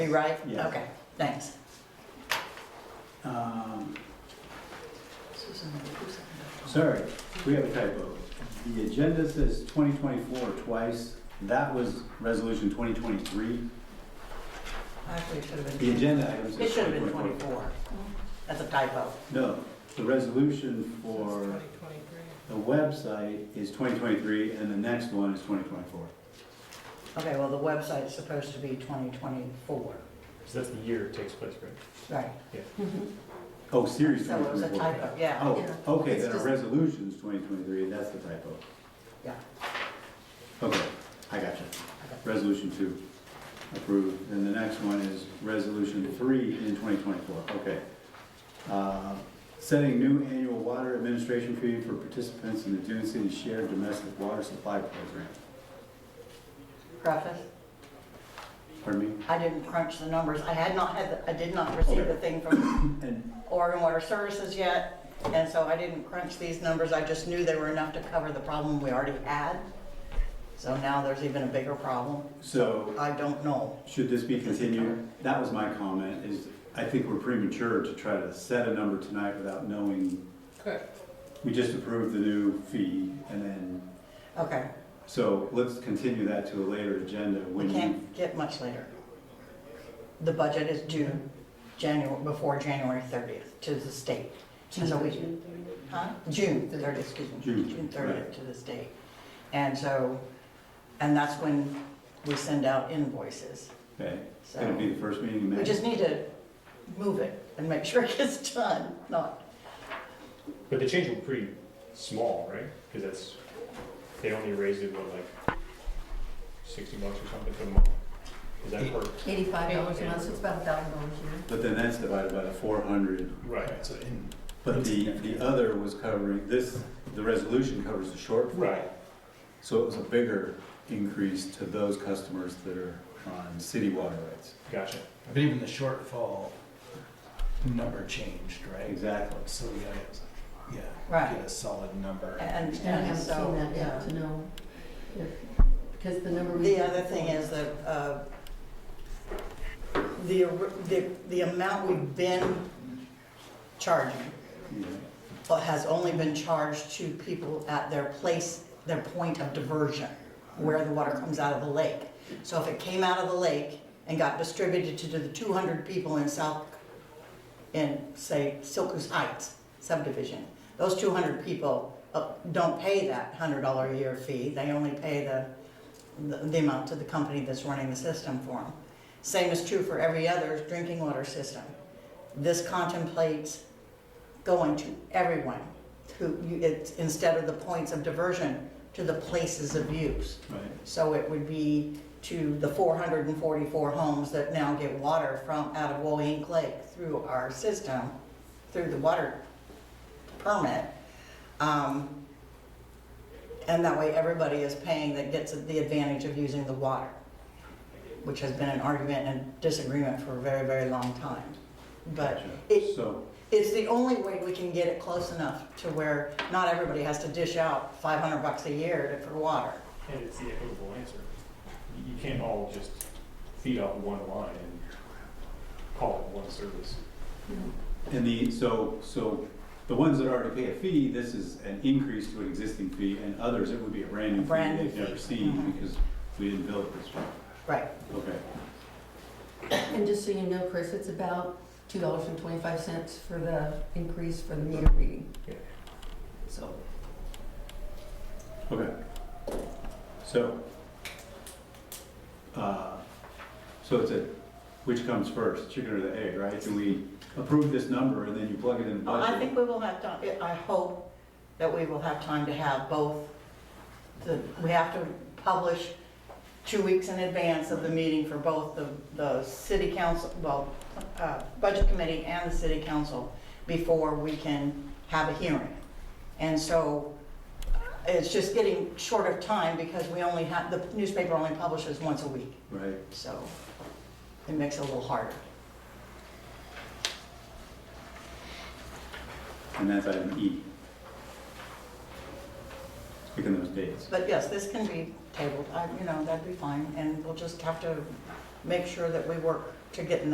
Be right? Yeah. Okay, thanks. Um, Susan, who seconded Sorry, we have a typo. The agenda says 2024 twice. That was resolution 2023. it? Actually, it should have The been. agenda item It says should have been 2024. 24. That's a typo. No, the resolution for the website is 2023 and the next one is 2024. Okay, well, the website is supposed to be 2024. Because that's the year it takes place, right? Right. Oh, series So it was a 2024. typo, yeah. Oh, Yeah. okay, It's then our just- resolution's 2023, that's the typo. Yeah. Okay, I got you. Resolution two, approved. And the next one is resolution three in 2024, okay. Uh, Setting new annual water administration fee for participants in the Dune City Shared Domestic Water Supply Program. Preface, Pardon me? I didn't crunch the numbers. I had not had, the- I did not receive the thing from And, Oregon Water Services yet, and so I didn't crunch these numbers. I just knew they were enough to cover the problem we already had. So now there's even a bigger problem. so, I don't know. should this be continued? That was my comment, is I think we're premature to try to set a number tonight without knowing. Correct. We just approved the new fee, and then, Okay, so let's continue that to a later agenda we when you can't get much later. The budget is due January, before January 30th to the state. And so we, huh? June 30th, excuse me. June, June 30th right. to the state. And so, and that's when we send out invoices. Okay, So it'll be the first meeting in May. we just need to move it and make sure it gets done, not, But the change will be pretty small, right? Because that's, they only raised it, what, like sixty bucks or something for the month? Is that per? Eighty-five dollars a month, so it's about a thousand dollars a year. But then that's divided by the four hundred, Right. so in. but the, the other was covering, this, the resolution covers the short, Right. so it was a bigger increase to those customers that are on city water rights. Gotcha. But even the shortfall number changed, right? Exactly. So we gotta, yeah. Right. Get a solid number. and, And I and haven't so, seen that yeah. yet to know if, because the number. we- The other thing is that, uh, the, the, the amount we've been charging Yeah. uh, has only been charged to people at their place, their point of diversion, where the water comes out of the lake. So if it came out of the lake and got distributed to the two hundred people in South, in, say, Silkus Heights subdivision, those two hundred people uh, don't pay that hundred dollar a year fee, they only pay the the, the amount to the company that's running the system for them. Same is true for every other drinking water system. This contemplates going to everyone who, you- it's, instead of the points of diversion, to the places of use. Right, So it would be to the four hundred and forty-four homes that now get water from, out of Woink Lake through our system, through the water permit. Um, And that way, everybody is paying that gets the advantage of using the water, which has been an argument and disagreement for a very, very long time. But it, gotcha. So, it's the only way we can get it close enough to where not everybody has to dish out five hundred bucks a year to- for water. And it's the equitable answer. You- You can't all just feed off one line and call it one service. and the, so, so the ones that already pay a fee, this is an increase to an existing fee, and others, it would be a brand new fee Brand new they've never fee. seen Mhm. because we didn't build it this way. Right. Okay, And just so you know, Chris, it's about two dollars and twenty-five cents for the increase for the meter reading. Yeah. So, Okay. So, uh, so it's a, which comes first, chicken or the egg, right? Do we approve this number and then you plug it in the Well, Oh, I budget? think we will have time, I hope that we will have time to have both. the- We have to publish two weeks in advance of the meeting for both the, the city council, well, uh, budget committee and the city council before we can have a hearing. And so uh, it's just getting short of time because we only have, the newspaper only publishes once a week. Right, So it makes it a little harder. and that's item E. Picking those dates. But yes, this can be tabled, I, you know, that'd be fine, and we'll just have to make sure that we work to getting